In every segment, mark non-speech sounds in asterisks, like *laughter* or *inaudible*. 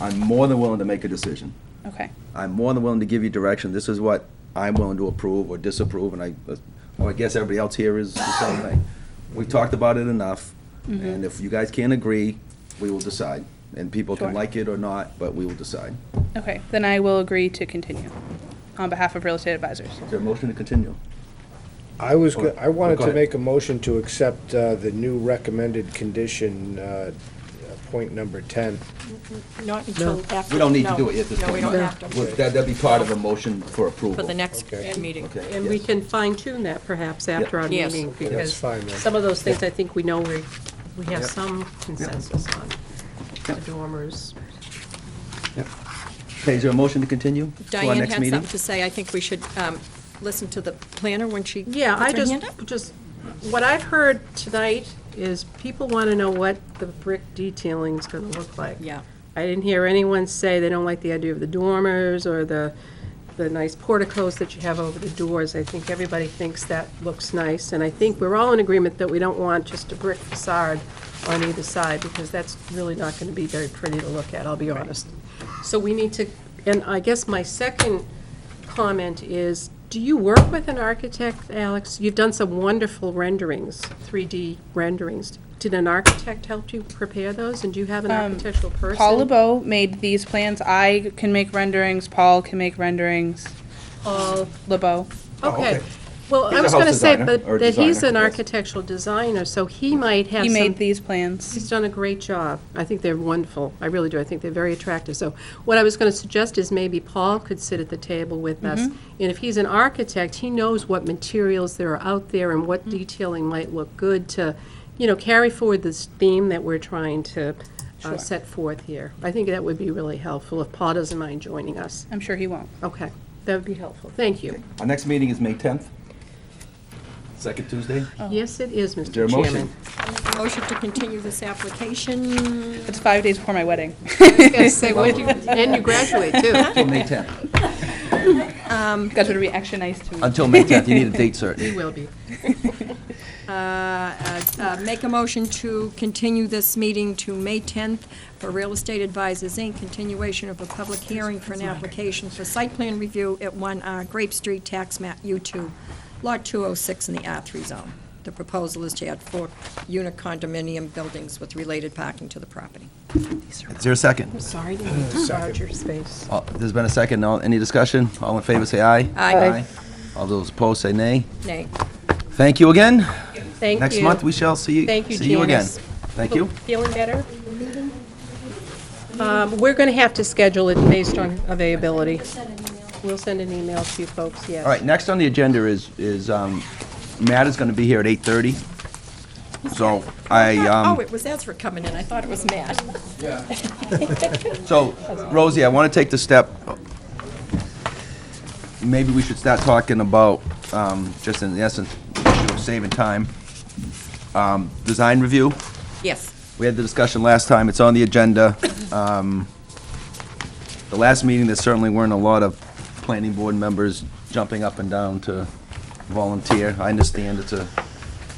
I'm more than willing to make a decision. Okay. I'm more than willing to give you direction. This is what I'm willing to approve or disapprove, and I, well, I guess everybody else here is the same thing. We've talked about it enough, and if you guys can't agree, we will decide. And people can Sure. like it or not, but we will decide. Okay, then I will agree to continue on behalf of Real Estate Advisors. Is there a motion to continue? I was, Or- go- I wanted Oh, go to ahead. make a motion to accept uh, the new recommended condition, uh, point number 10. Not until after. We don't need to no. do it yet at this No, we point. don't in have time. to, Would that, that'd be part of a motion for approval. for the next Okay. meeting. Okay, And we yes. can fine tune that perhaps after our Yes. meeting, Okay, that's because fine then. some of those things I think we know we, we have Yep. some consensus on. The dormers, Okay, is there a motion to continue? to our Diane next had meeting? something to say. I think we should um, listen to the planner when she puts Yeah, her I just, hand up. just, what I've heard tonight is people want to know what the brick detailing's going to look like. Yeah. I didn't hear anyone say they don't like the idea of the dormers or the, the nice porticos that you have over the doors. I think everybody thinks that looks nice, and I think we're all in agreement that we don't want just a brick facade on either side, because that's really not going to be very pretty to look at, I'll be honest. So we need to, and I guess my second comment is, do you work with an architect, Alex? You've done some wonderful renderings, 3D renderings. Did an architect help you prepare those, and do you have an architectural person? Paul LeBeau made these plans. I can make renderings, Paul can make renderings. Paul LeBeau. Okay. Well, Oh, He's I a was going to house say, designer, but or that he's designer, an yes. architectural designer, so he might have He some... made these plans. He's done a great job. I think they're wonderful. I really do. I think they're very attractive. So what I was going to suggest is maybe Paul could sit at the table with us. Mm-hmm. And if he's an architect, he knows what materials there are out there and Mm-hmm. what detailing might look good to, you know, carry forward this theme that we're trying to uh, set forth here. I think that would be really helpful if Paul doesn't mind joining us. I'm sure he won't. Okay, that would be helpful. Thank you. Our next meeting is May 10th, second Tuesday. Yes, it is, Is there Mr. a Oh, Chairman. motion? Motion to continue this application. It's five days before my wedding. Yes, they would. And you graduate, too. *laughs* Until May 10th. Guys would be extra nice to me. Until May 10th, you need a date certain. You will be. Uh, Make a motion to continue this meeting to May 10th for Real Estate Advisors, Inc., continuation of a public hearing for an application for site plan review at 1 uh, Grape Street, tax map U2, Lot 206 in the R3 zone. The proposal is to add four-unit condominium buildings with related parking to the property. Is there a second? Sorry to make you charge your space. Uh, There's been a second. No, any discussion? All in favor, say aye. Aye. Aye. All those opposed, say nay. Nay. Thank you again. Thank you. Next month, we shall see you. Thank you, See you again. Janice. Thank you. Feeling better? Um, We're going to have to schedule it based on availability. We'll send an email to you folks, yes. All right, next on the agenda is, is, um, Matt is gonna be here at 8:30. So I, Oh, um, it was Ezra coming in. I thought it was Matt. so Rosie, I wanna take the step, maybe we should start talking about, um, just in essence, issue of saving time. Um, design review. Yes. We had the discussion last time, it's on the agenda. Um, The last meeting, there certainly weren't a lot of planning board members jumping up and down to volunteer. I understand it's a,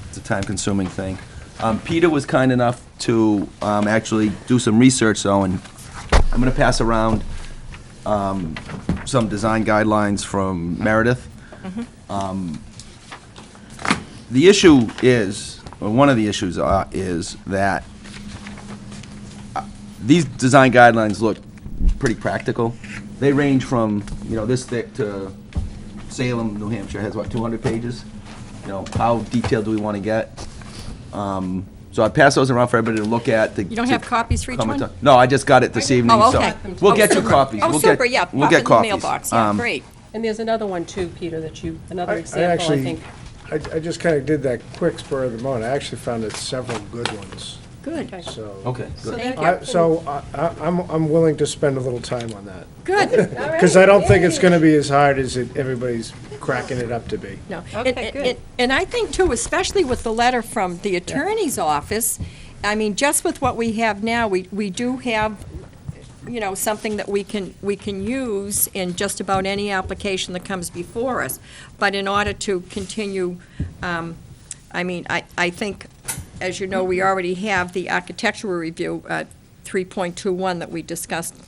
it's a time-consuming thing. Um, Peter was kind enough to um, actually do some research, though, and I'm gonna pass around um, some design guidelines from Meredith. Mm-hmm. Um, The issue is, or one of the issues are- is that uh, these design guidelines look pretty practical. They range from, you know, this thick to Salem, New Hampshire has what, 200 pages? You know, how detailed do we want to get? Um, So I pass those around for everybody to look at. You don't have copies for each one? No, I just got it this evening, Oh, so. okay. We'll Oh, get you super. copies. Oh, We'll get- super, yeah. We'll pop get it in the copies. mailbox. Yeah, Um, great. And there's another one, too, Peter, that you, another I- I example, I actually- think. I, I just kind of did that quick spur of the moment. I actually found it several good ones, Good, so. Okay, good. thank I- you. So I, I- I'm, I'm willing to spend a little time on that. Good. *laughs* Because I don't think it's going to be as hard as it- everybody's cracking it up to be. No. Okay, And- and- good. And I think too, especially with the letter from the attorney's office, I mean, just with what we have now, we, we do have, you know, something that we can, we can use in just about any application that comes before us. But in order to continue, um, I mean, I, I think, as you know, we already have the architectural review, uh, 3.21 that we discussed